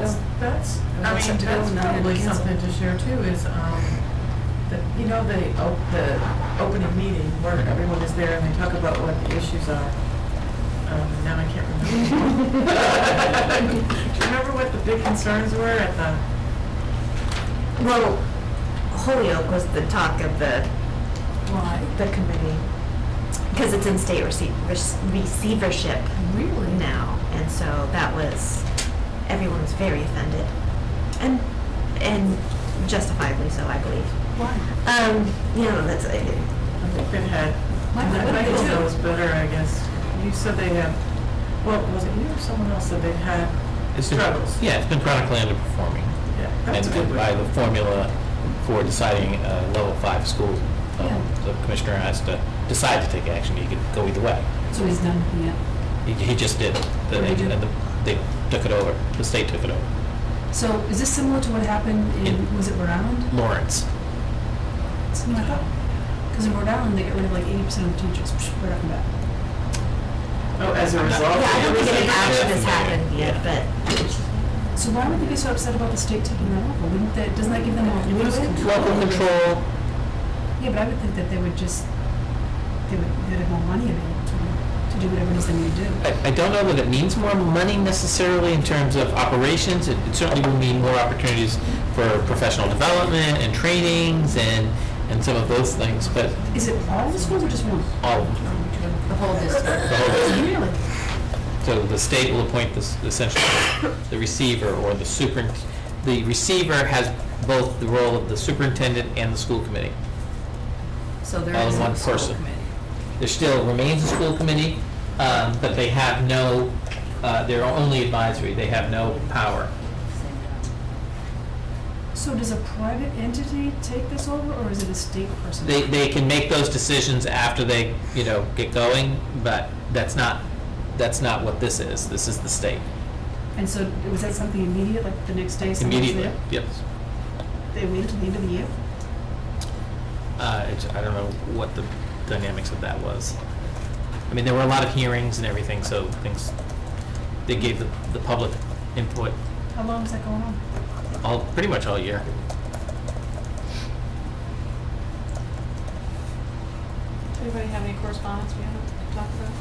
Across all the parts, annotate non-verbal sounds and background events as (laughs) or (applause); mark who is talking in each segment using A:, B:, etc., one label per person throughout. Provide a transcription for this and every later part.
A: That's, I
B: That's
A: mean,
B: up to
A: that's
B: them, not
A: probably
B: to cancel.
A: something to share too, is, um, the, you know, the, op- the opening meeting where everyone is there and they talk about what the issues are. Um, now I can't
C: (laughs)
A: remember. Do you remember what the big concerns were at the,
D: Well, Holyoke was the talk of the,
B: Why?
D: the committee, because it's in state receiv- rec- receivership
B: Really?
D: now, and so that was, everyone was very offended, and, and justifiably so, I believe.
B: Why?
D: Um, you know, that's,
A: I think they had,
B: Michael, what did they
A: Michael
B: do?
A: knows better, I guess. You said they have, well, was it you or someone else that they had,
E: It's been-
A: Struggles.
E: Yeah, it's been chronically underperforming.
A: yeah,
E: And
A: that's a good
E: and
A: way.
E: by the formula for deciding a level five school, um,
B: Yeah.
E: the commissioner has to decide to take action. He could go either way.
B: So he's done, yeah.
E: He- He just did. The-
B: What did he do?
E: and the- They took it over. The state took it over.
B: So is this similar to what happened in,
E: In-
B: was it Rhode Island?
E: Lawrence.
B: Something like that? Because in Rhode Island, they get rid of like eighty percent of teachers psh, right off the bat.
A: Oh, as a
E: I'm not-
A: result?
D: yeah, I don't think
E: it
D: any
E: was-
D: action has
E: yeah.
D: happened yet, but
B: So why would they be so upset about the state taking that over? Wouldn't that, doesn't that give them more
A: Lose
B: leeway?
E: Local control.
B: Yeah, but I would think that they would just, they would, they'd have more money available to them to do whatever it is they need to do.
E: I I don't know that it means more money necessarily in terms of operations. It it certainly will mean more opportunities for professional development and trainings and, and some of those things, but
B: Is it all the schools or just one?
E: all of them.
D: the whole district.
E: The whole (laughs) district.
B: Really?
E: So the state will appoint this, essentially, the receiver or the superin, the receiver has both the role of the superintendent and the school committee.
C: So there
E: All in
C: is
E: one
C: a school
E: person.
C: committee.
E: There still remains a school committee, um, but they have no, uh, they're only advisory, they have no power.
B: So does a private entity take this over, or is it a state person?
E: They, they can make those decisions after they, you know, get going, but that's not, that's not what this is. This is the state.
B: And so, was that something immediate, like the next day, someone's
E: Immediately,
B: there?
E: yes.
B: They waited till the end of the year?
E: Uh, it's, I don't know what the dynamics of that was. I mean, there were a lot of hearings and everything, so things, they gave the, the public input
B: How long was that going on?
E: all, pretty much all year.
F: Anybody have any correspondence we haven't talked about?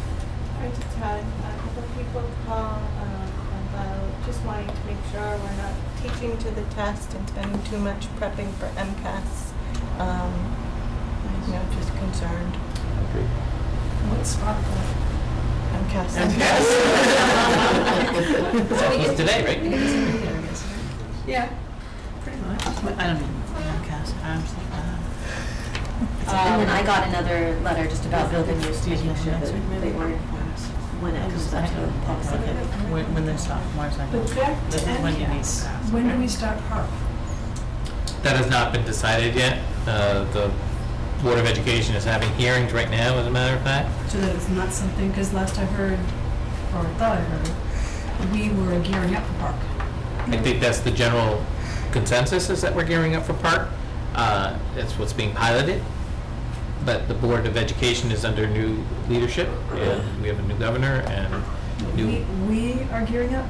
G: I just had a couple of people call um, about just wanting to make sure we're not teaching to the test and spending too much prepping for MCAS. Um, You know, just concerned.
B: What spot?
G: MCAS.
E: That
G: (laughs)
E: was today, right?
F: Yeah.
B: Pretty much.
C: I don't even, cast, I'm, just like, uh,
D: And then
C: Um,
D: I got another letter just about building use, making sure that they were informed when it comes
C: because I
D: up to
C: don't
D: policy.
C: like it. When, when they're sophomores, I
B: But
C: know.
B: back to
C: This is when you need
B: MCAS,
C: to ask.
B: when do we start PARP?
E: That has not been decided yet. Uh, the Board of Education is having hearings right now, as a matter of fact.
B: So that it's not something, because last I heard, or thought I heard, we were gearing up for PARP.
E: I think that's the general consensus is that we're gearing up for park. Uh, That's what's being piloted. But the Board of Education is under new leadership, and we have a new governor and
B: We,
E: new,
B: we are gearing up,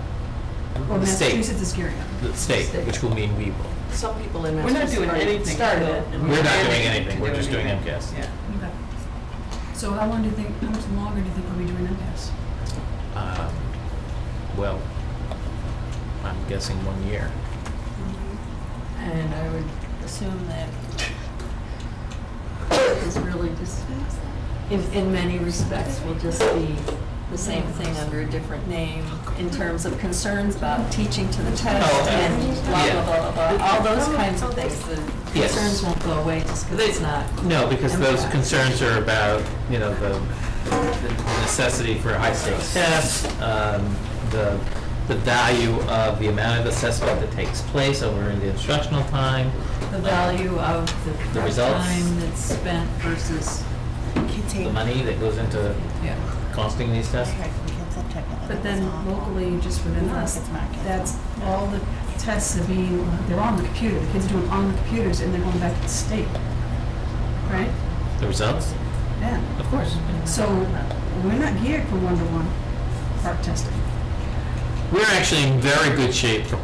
B: or
E: The state.
B: Massachusetts is gearing up?
E: the state, which will mean we will.
C: Some people in
A: We're not
C: Massachusetts
A: doing
C: already
A: anything
C: started
A: until-
C: it. and
E: We're not doing
C: planning to
E: anything.
C: do
E: We're just doing
C: anything.
E: MCAS.
C: Yeah.
B: Okay. So how long do you think, how much longer do you think we'll be doing MCAS?
E: Um, Well, I'm guessing one year.
C: And I would assume that it's really just, in, in many respects, will just be the same thing under a different name in terms of concerns about teaching to the
E: Oh,
C: test
E: okay.
C: and blah, blah,
E: Yeah.
C: blah, blah, blah. All those kinds of things, the
E: Yes.
C: concerns won't go away just because it's not.
E: No, because those
C: MCAS.
E: concerns are about, you know, the the necessity for high-stakes tests, um, the, the value of the amount of assessment that takes place over the instructional time.
C: The value of the
E: The results.
C: time that's spent versus,
E: The money that goes into
C: yeah.
E: costing these tests.
B: But then locally, just within us, that's all the tests are being, they're on the computer, the kids are doing on the computers and they're going back to the state, right?
E: The results,
B: Yeah,
E: of course.
C: Mm-hmm.
B: so we're not geared for one-to-one part testing.
E: We're actually in very good shape for